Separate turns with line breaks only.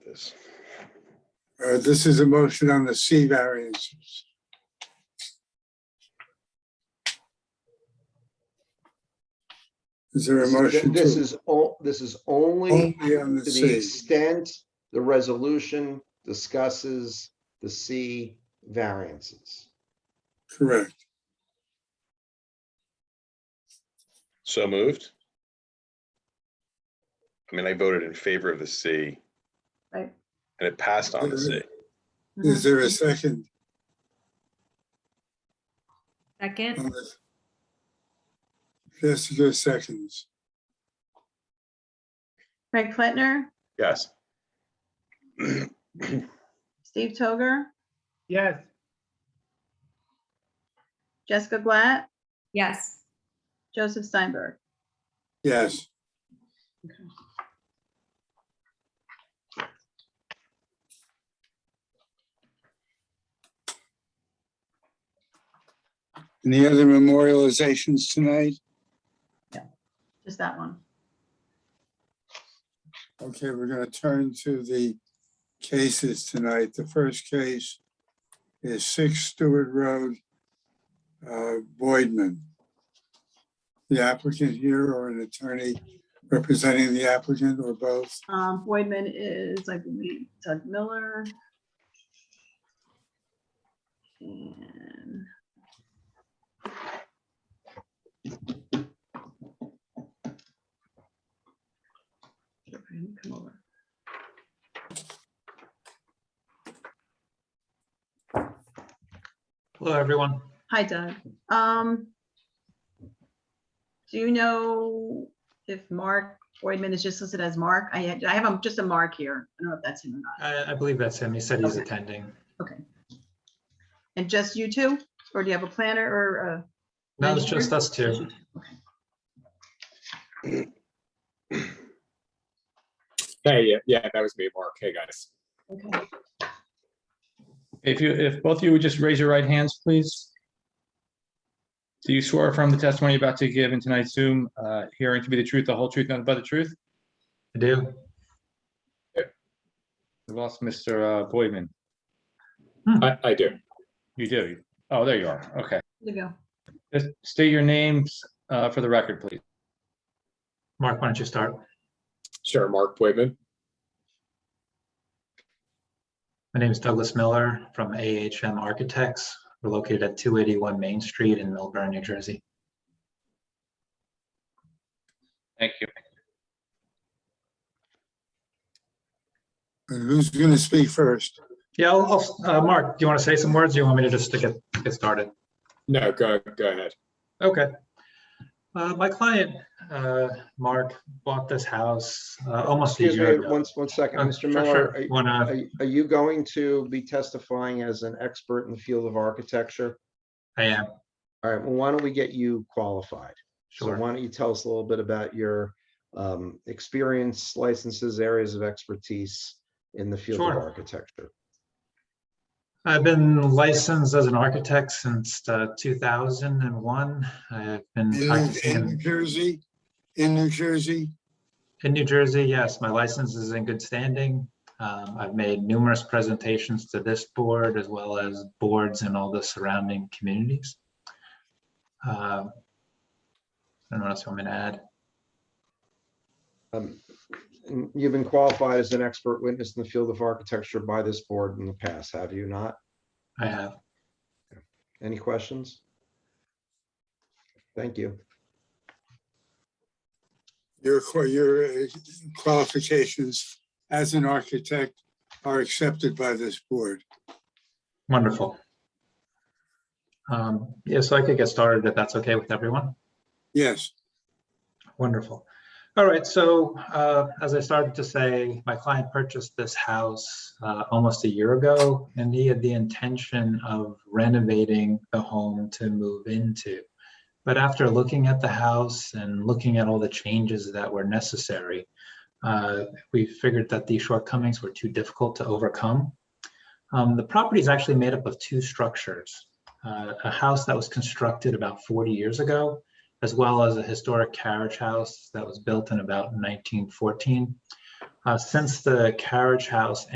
this. Uh, This is a motion on the C variances. Is there a motion?
This
to-
is, o- this is only
Only on the
to the
C.
extent the resolution discusses the C variances.
Correct.
So moved. I mean, I voted in favor of the C.
Right.
And it passed on the C.
Mm-hmm.
Is there a second?
Second,
on this? Jessica seconds.
Craig Platner,
Yes.
Steve Toger,
yes,
Jessica Glatt,
yes.
Joseph Steinberg.
Yes. Any other memorializations tonight?
Just that one.
Okay, we're gonna turn to the cases tonight. The first case is six Stewart Road, uh, Boydman. The applicant here or an attorney representing the applicant or both?
Um, Boydman is, I believe, Doug Miller. And Come over.
hello, everyone.
Hi Doug. Um, do you know if Mark Boydman is just listed as Mark? I had, I have him just a Mark here. I don't know if that's him or not.
I, I believe that's him. He said he's
Okay.
attending.
And just you two? Or do you have a planner or uh?
No, it's
Thank you.
just us two.
Hey, yeah, yeah, that was me, Mark. Hey, guys.
a? Okay.
If you, if both of you would just raise your right hands, please. Do you swear from the testimony you're about to give in tonight's Zoom uh, hearing to be the truth, the whole truth, nothing but the truth?
I do.
We lost Mr. uh, Boydman.
I, I do.
You do. Oh, there you are. Okay.
There you go.
Just State your names uh, for the record, please.
Mark, why don't you start?
Sure, Mark Boydman.
My name is Douglas Miller from AHM Architects. We're located at 281 Main Street in Millburn, New Jersey.
Thank you.
And who's gonna speak first?
Yeah, I'll- I'll- uh, Mark, do you want to say some words? or You want me to just to get, get started?
No, go, go ahead.
Okay. Uh, My client, uh, Mark, bought this house uh, almost a
Excuse
year
me,
ago.
once, one second,
Uh,
Mr.
sure,
Miller,
sure. uh,
are-
Wanna-
are, are you going to be testifying as an expert in the field of architecture?
I am,
All right, well, why don't we get you qualified? So
Sure.
why don't you tell us a little bit about your um, experience, licenses, areas of expertise in the field of
Sure.
architecture?
I've been licensed as an architect since uh, 2001. I've been
In
practicing
in New
in-
Jersey, in New Jersey,
in New Jersey. Yes, my license is in good standing. Um, I've made numerous presentations to this board as well as boards in all the surrounding communities. Uh, I don't know what else I'm going to add.
Um, n- You've been qualified as an expert witness in the field of architecture by this board in the past, have you not?
I have,
Any questions? Thank you.
your, qua- your uh, qualifications as an architect are accepted by this board.
wonderful. Um, Yeah, so I could get started if that's okay with everyone.
Yes,
Wonderful. All right, so uh, as I started to say, my client purchased this house uh, almost a year ago, and he had the intention of renovating the home to move into. But after looking at the house and looking at all the changes that were necessary, uh, we figured that these shortcomings were too difficult to overcome. Um, The property is actually made up of two structures. uh, A house that was constructed about 40 years ago as well as a historic carriage house that was built in about 1914. Uh, Since the carriage house